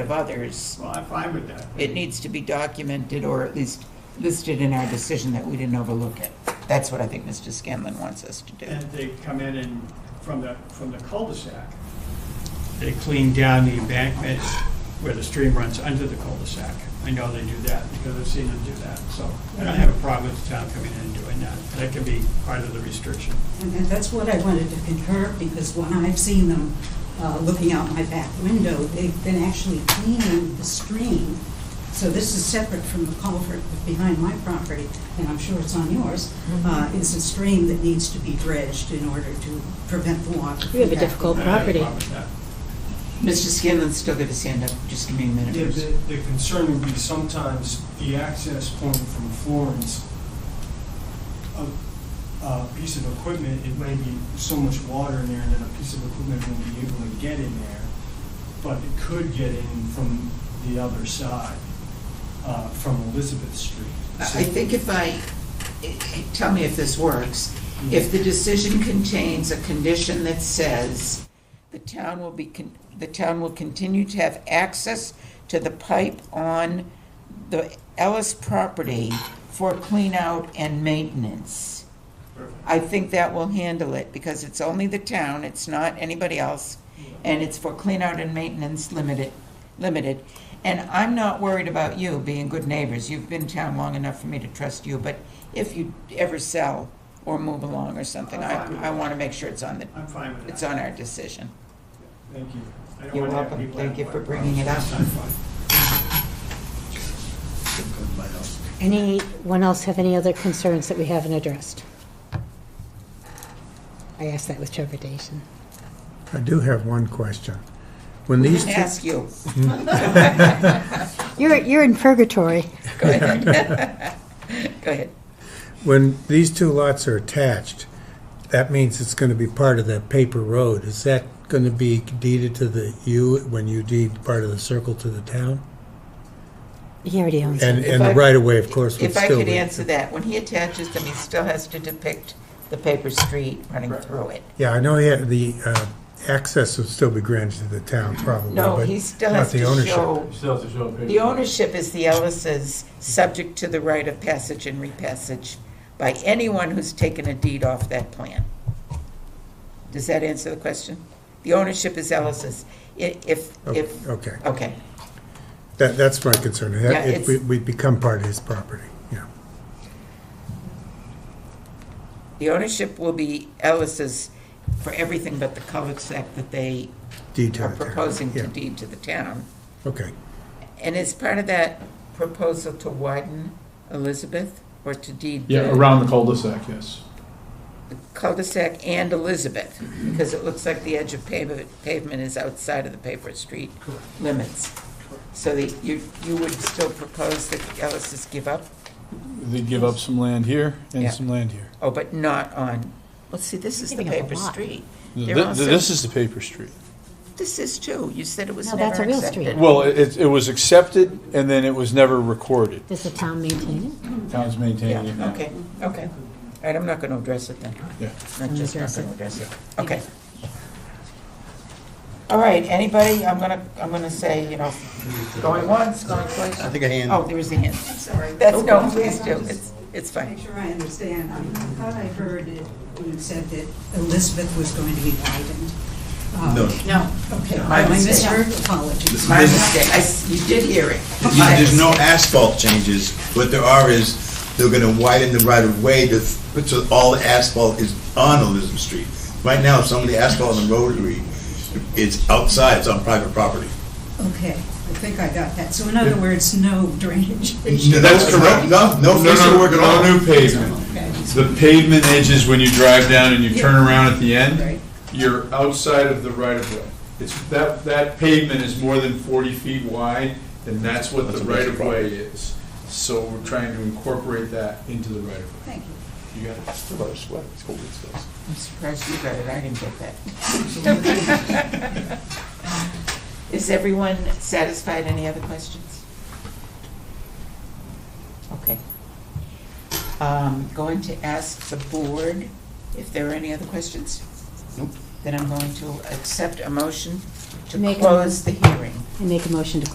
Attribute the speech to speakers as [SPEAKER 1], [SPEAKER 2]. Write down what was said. [SPEAKER 1] of others,
[SPEAKER 2] Well, I'm fine with that.
[SPEAKER 1] it needs to be documented or at least listed in our decision that we didn't overlook it. That's what I think Mr. Scanlon wants us to do.
[SPEAKER 2] And they come in and, from the, from the cul-de-sac, they clean down the embankment where the stream runs under the cul-de-sac. I know they do that, because I've seen them do that, so I don't have a problem with the town coming in and doing that. That can be part of the restriction.
[SPEAKER 3] And and that's what I wanted to concur, because when I've seen them uh, looking out my back window, they've been actually cleaning the stream. So this is separate from the culvert behind my property, and I'm sure it's on yours.
[SPEAKER 4] Mm-hmm.
[SPEAKER 3] Uh, It's a stream that needs to be dredged in order to prevent the water.
[SPEAKER 4] You have a
[SPEAKER 3] from
[SPEAKER 4] difficult-
[SPEAKER 3] backing up.
[SPEAKER 2] I don't have a
[SPEAKER 4] property.
[SPEAKER 2] problem with that.
[SPEAKER 1] Mr. Scanlon's still got his hand up, just give me a minute.
[SPEAKER 5] Yeah,
[SPEAKER 1] first.
[SPEAKER 5] the, the concern would be sometimes the access point from Florence, a, a piece of equipment, it may be so much water in there that a piece of equipment won't be able to get in there, but it could get in from the other side, uh, from Elizabeth Street.
[SPEAKER 1] I
[SPEAKER 5] So-
[SPEAKER 1] I think if I, i- i- tell me if this works, if the decision contains a condition that says the town will be, con- the town will continue to have access to the pipe on the Ellis property for clean-out and maintenance, I think that will handle it, because it's only the town, it's not anybody else, and it's for clean-out and maintenance limited, limited. And I'm not worried about you being good neighbors. You've been in town long enough for me to trust you, but if you ever sell or move along or something, I, I want to make sure it's on the,
[SPEAKER 2] I'm fine with that.
[SPEAKER 1] it's on our decision.
[SPEAKER 5] Thank you.
[SPEAKER 2] I don't
[SPEAKER 1] You're
[SPEAKER 2] wanna have
[SPEAKER 1] welcome.
[SPEAKER 2] people
[SPEAKER 1] Thank
[SPEAKER 2] have
[SPEAKER 1] you for
[SPEAKER 2] water
[SPEAKER 1] bringing it
[SPEAKER 2] problems.
[SPEAKER 1] up.
[SPEAKER 2] That's not fun.
[SPEAKER 4] Anyone else have any other concerns that we haven't addressed? I ask that with trepidation.
[SPEAKER 6] I do have one question. When these, two-
[SPEAKER 1] Ask you.
[SPEAKER 4] You're, you're in purgatory.
[SPEAKER 1] Go ahead. Go ahead.
[SPEAKER 6] when these two lots are attached, that means it's gonna be part of that paper road. Is that gonna be deeded to the, you, when you deed part of the circle to the town?
[SPEAKER 4] He already owns it.
[SPEAKER 6] And, and
[SPEAKER 1] I-
[SPEAKER 6] the right of way, of course, would
[SPEAKER 1] If I
[SPEAKER 6] still
[SPEAKER 1] could
[SPEAKER 6] be.
[SPEAKER 1] answer that, when he attaches them, he still has to depict the paper street running through it.
[SPEAKER 6] Yeah, I know he had the, uh, access would still be granted to the town probably,
[SPEAKER 1] No,
[SPEAKER 6] but
[SPEAKER 1] he still
[SPEAKER 6] not
[SPEAKER 1] has
[SPEAKER 6] the
[SPEAKER 1] to
[SPEAKER 6] ownership.
[SPEAKER 1] show, the ownership is the Ellis's, subject to the right of passage and repassage by anyone who's taken a deed off that plan. Does that answer the question? The ownership is Ellis's. I- If, if,
[SPEAKER 6] Oh, Okay,
[SPEAKER 1] okay,
[SPEAKER 6] that, that's my concern.
[SPEAKER 1] Yeah,
[SPEAKER 6] That,
[SPEAKER 1] it's-
[SPEAKER 6] it, we, we become part of his property, yeah.
[SPEAKER 1] the ownership will be Ellis's for everything but the cul-de-sac that they
[SPEAKER 6] Deed to
[SPEAKER 1] are
[SPEAKER 6] the town.
[SPEAKER 1] proposing to
[SPEAKER 6] Yeah,
[SPEAKER 1] deed to the town.
[SPEAKER 6] Okay.
[SPEAKER 1] And is part of that proposal to widen Elizabeth or to deed?
[SPEAKER 7] Yeah,
[SPEAKER 1] the-
[SPEAKER 7] around the cul-de-sac, yes.
[SPEAKER 1] cul-de-sac and Elizabeth, because it looks like the edge of pavement, pavement is outside of the paper street limits. So that you, you would still propose that Ellis's give up?
[SPEAKER 7] They give up some land here
[SPEAKER 1] Yeah.
[SPEAKER 7] and some land here.
[SPEAKER 1] Oh, but not on, let's see, this is the
[SPEAKER 4] Giving up a
[SPEAKER 1] paper
[SPEAKER 4] lot.
[SPEAKER 1] street. They're
[SPEAKER 7] Th-
[SPEAKER 1] also-
[SPEAKER 7] This is the paper street.
[SPEAKER 1] This is too, you said it was
[SPEAKER 4] No, that's
[SPEAKER 1] never
[SPEAKER 4] a real
[SPEAKER 1] accepted.
[SPEAKER 4] street.
[SPEAKER 7] Well, it, it was accepted and then it was never recorded.
[SPEAKER 4] Does the town maintain it?
[SPEAKER 7] Town's maintaining it
[SPEAKER 1] Yeah,
[SPEAKER 7] now.
[SPEAKER 1] okay, okay. All right, I'm not gonna address it then.
[SPEAKER 7] Yeah.
[SPEAKER 1] I'm just not
[SPEAKER 4] Address it.
[SPEAKER 1] gonna address it. Okay. All right, anybody, I'm gonna, I'm gonna say, you know, going once, going twice. I think a hand. Oh, there is a hand.
[SPEAKER 3] I'm sorry.
[SPEAKER 1] That's, no, please do, it's, it's
[SPEAKER 3] Make
[SPEAKER 1] fine.
[SPEAKER 3] sure I understand. I I thought I heard it when you said that Elizabeth was going to be widened. Uh,
[SPEAKER 8] No.
[SPEAKER 1] No.
[SPEAKER 3] Okay,
[SPEAKER 1] My
[SPEAKER 3] I
[SPEAKER 1] mistake.
[SPEAKER 3] misheard, apologies.
[SPEAKER 1] My mistake, I s you did hear it.
[SPEAKER 8] Yeah, There's no asphalt changes. What there are is, they're gonna widen the right of way to, put so all the asphalt is on Elizabeth Street. Right now, some of the asphalt on the rotary, it's outside, it's on private property.
[SPEAKER 3] Okay, I think I got that. So in other words, no drainage.
[SPEAKER 8] That's correct. No, no fixing work at all.
[SPEAKER 7] No new pavement.
[SPEAKER 3] Okay.
[SPEAKER 7] The pavement edges, when you drive down and you turn around at the
[SPEAKER 3] Right.
[SPEAKER 7] end, you're outside of the right-of-way. It's, that, that pavement is more than 40 feet wide, and that's what
[SPEAKER 8] That's
[SPEAKER 7] the
[SPEAKER 8] a major problem.
[SPEAKER 7] right-of-way is. So we're trying to incorporate that into the right-of-way.
[SPEAKER 3] Thank you.
[SPEAKER 7] You got it?
[SPEAKER 1] I'm surprised you got it, I didn't get that. Is everyone satisfied, any other questions? Okay. Um, going to ask the board if there are any other questions? Then I'm going to accept a motion to
[SPEAKER 4] Make a-
[SPEAKER 1] close the hearing.
[SPEAKER 4] I make a motion to